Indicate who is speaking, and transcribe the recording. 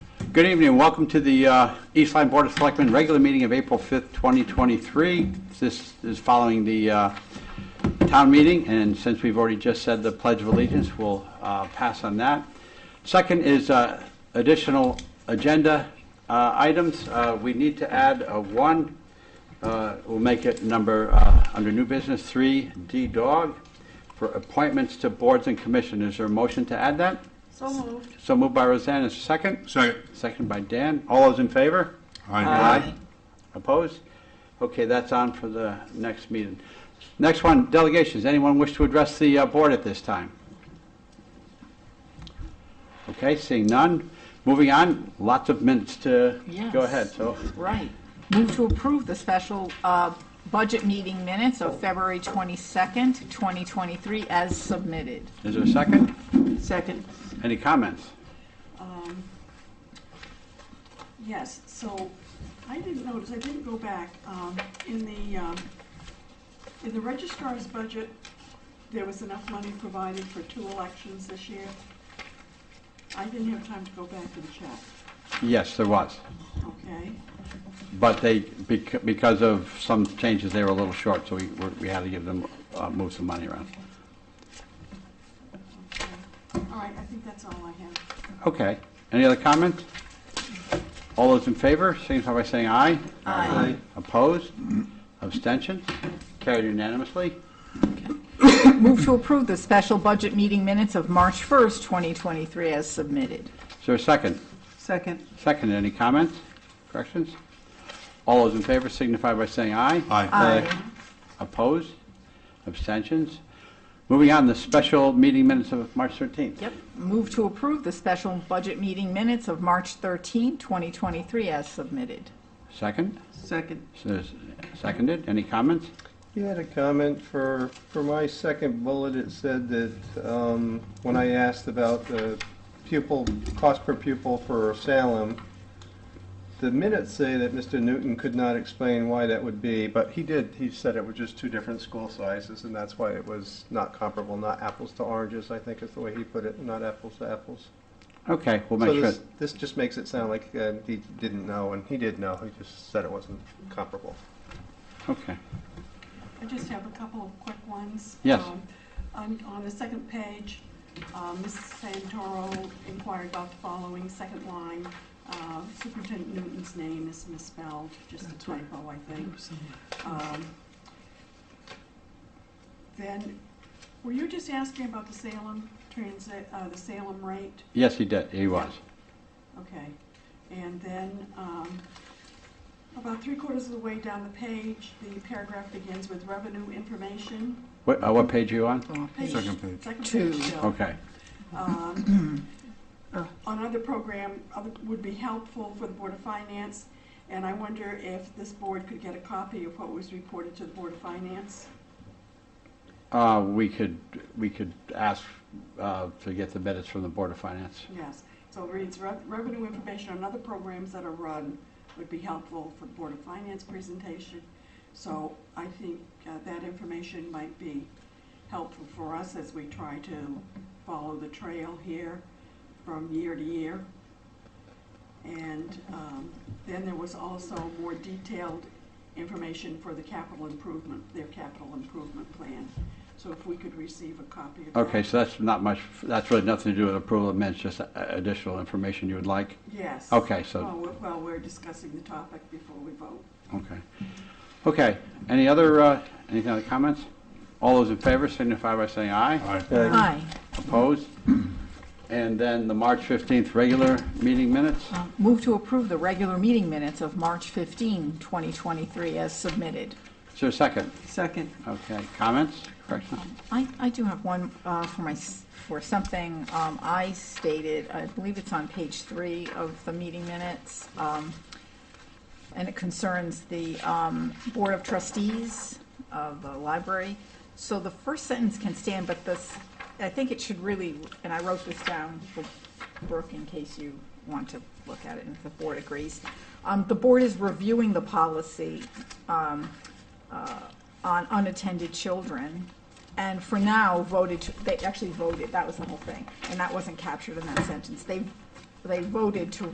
Speaker 1: Good evening, welcome to the uh, East Line Board of Selectmen regular meeting of April 5th, 2023. This is following the uh, town meeting, and since we've already just said the Pledge of Allegiance, we'll uh, pass on that. Second is uh, additional agenda uh, items. Uh, We need to add a one, uh, we'll make it number, uh, under new business, 3D Dog, for appointments to boards and commissioners. Is there a motion to add that?
Speaker 2: So moved.
Speaker 1: So moved by Roseanne, is there a second?
Speaker 3: Second.
Speaker 1: Second by Dan. All those in favor?
Speaker 3: Aye.
Speaker 1: Opposed? Okay, that's on for the next meeting. Next one, delegations. Anyone wish to address the uh, board at this time? Okay, seeing none. Moving on, lots of minutes to
Speaker 2: Yes.
Speaker 1: go ahead, so.
Speaker 2: Right. Move to approve the special uh, budget meeting minutes of February 22nd, 2023, as submitted.
Speaker 1: Is there a second?
Speaker 2: Second.
Speaker 1: Any comments?
Speaker 4: Um, Yes, so I didn't notice, I didn't go back, um, in the, um, in the registrar's budget, there was enough money provided for two elections this year. I didn't have time to go back and check,
Speaker 1: Yes, there was.
Speaker 4: okay?
Speaker 1: But they, bec- because of some changes, they were a little short, so we were- we had to give them, uh, move some money around.
Speaker 4: okay. All right, I think that's all I have.
Speaker 1: Okay. Any other comments? All those in favor, signify by saying aye.
Speaker 2: Aye.
Speaker 1: Opposed? Abstentions? Carried unanimously.
Speaker 2: Move to approve the special budget meeting minutes of March 1st, 2023, as submitted.
Speaker 1: Is there a second?
Speaker 2: Second.
Speaker 1: Second, any comments, corrections? All those in favor signify by saying aye.
Speaker 3: Aye.
Speaker 2: Aye.
Speaker 1: Opposed? Abstentions? Moving on, the special meeting minutes of March 13th.
Speaker 2: Yep. Move to approve the special budget meeting minutes of March 13th, 2023, as submitted.
Speaker 1: Second?
Speaker 2: Second.
Speaker 1: So, Seconded, any comments?
Speaker 5: You had a comment for, for my second bullet, it said that, um, when I asked about the pupil, cost per pupil for Salem, the minutes say that Mr. Newton could not explain why that would be, but he did, he said it was just two different school sizes, and that's why it was not comparable, not apples to oranges, I think is the way he put it, not apples to apples.
Speaker 1: Okay, we'll
Speaker 5: So
Speaker 1: make sure.
Speaker 5: this, this just makes it sound like, uh, he didn't know, and he did know, he just said it wasn't comparable.
Speaker 1: Okay,
Speaker 4: I just have a couple of quick ones.
Speaker 1: Yes.
Speaker 4: Um, On, on the second page, um, Mrs. Santoro inquired about the following second line. Uh, Superintendent Newton's name is misspelled, just a typo, I think. Um, Then, were you just asking about the Salem transit, uh, the Salem rate?
Speaker 1: yes, he did, he was.
Speaker 4: Okay, and then, um, about three quarters of the way down the page, the paragraph begins with revenue information.
Speaker 1: What, uh, what page are you on?
Speaker 4: Page-
Speaker 3: Second page.
Speaker 4: Second
Speaker 2: Two.
Speaker 4: page, Bill.
Speaker 1: Okay,
Speaker 4: Um, Another program other- would be helpful for the Board of Finance, and I wonder if this board could get a copy of what was reported to the Board of Finance?
Speaker 1: uh, we could, we could ask, uh, to get the minutes from the Board of Finance.
Speaker 4: Yes, so it reads, "Rev- revenue information on other programs that are run would be helpful for the Board of Finance presentation. So I think uh, that information might be helpful for us as we try to follow the trail here from year to year. And um, then there was also more detailed information for the capital improvement, their capital improvement plan. So if we could receive a copy of that.
Speaker 1: Okay, so that's not much, that's really nothing to do with approval of minutes, just uh, additional information you would like?
Speaker 4: Yes.
Speaker 1: Okay, so-
Speaker 4: Well, we're- Well, we're discussing the topic before we vote.
Speaker 1: Okay. Okay, any other, uh, any other comments? All those in favor signify by saying aye.
Speaker 3: Aye.
Speaker 2: Aye.
Speaker 1: Opposed? And then the March 15th regular meeting minutes?
Speaker 2: Uh, Move to approve the regular meeting minutes of March 15, 2023, as submitted.
Speaker 1: Is there a second?
Speaker 2: Second.
Speaker 1: Okay, comments, corrections?
Speaker 2: I, I do have one uh, for my, s- for something um, I stated, I believe it's on page three of the meeting minutes, um, and it concerns the um, Board of Trustees of the library. So the first sentence can stand, but this, I think it should really, and I wrote this down for Brooke in case you want to look at it and if the board agrees. Um, The board is reviewing the policy um, on unattended children, and for now voted, to- they actually voted, that was the whole thing, and that wasn't captured in that sentence. They, they voted to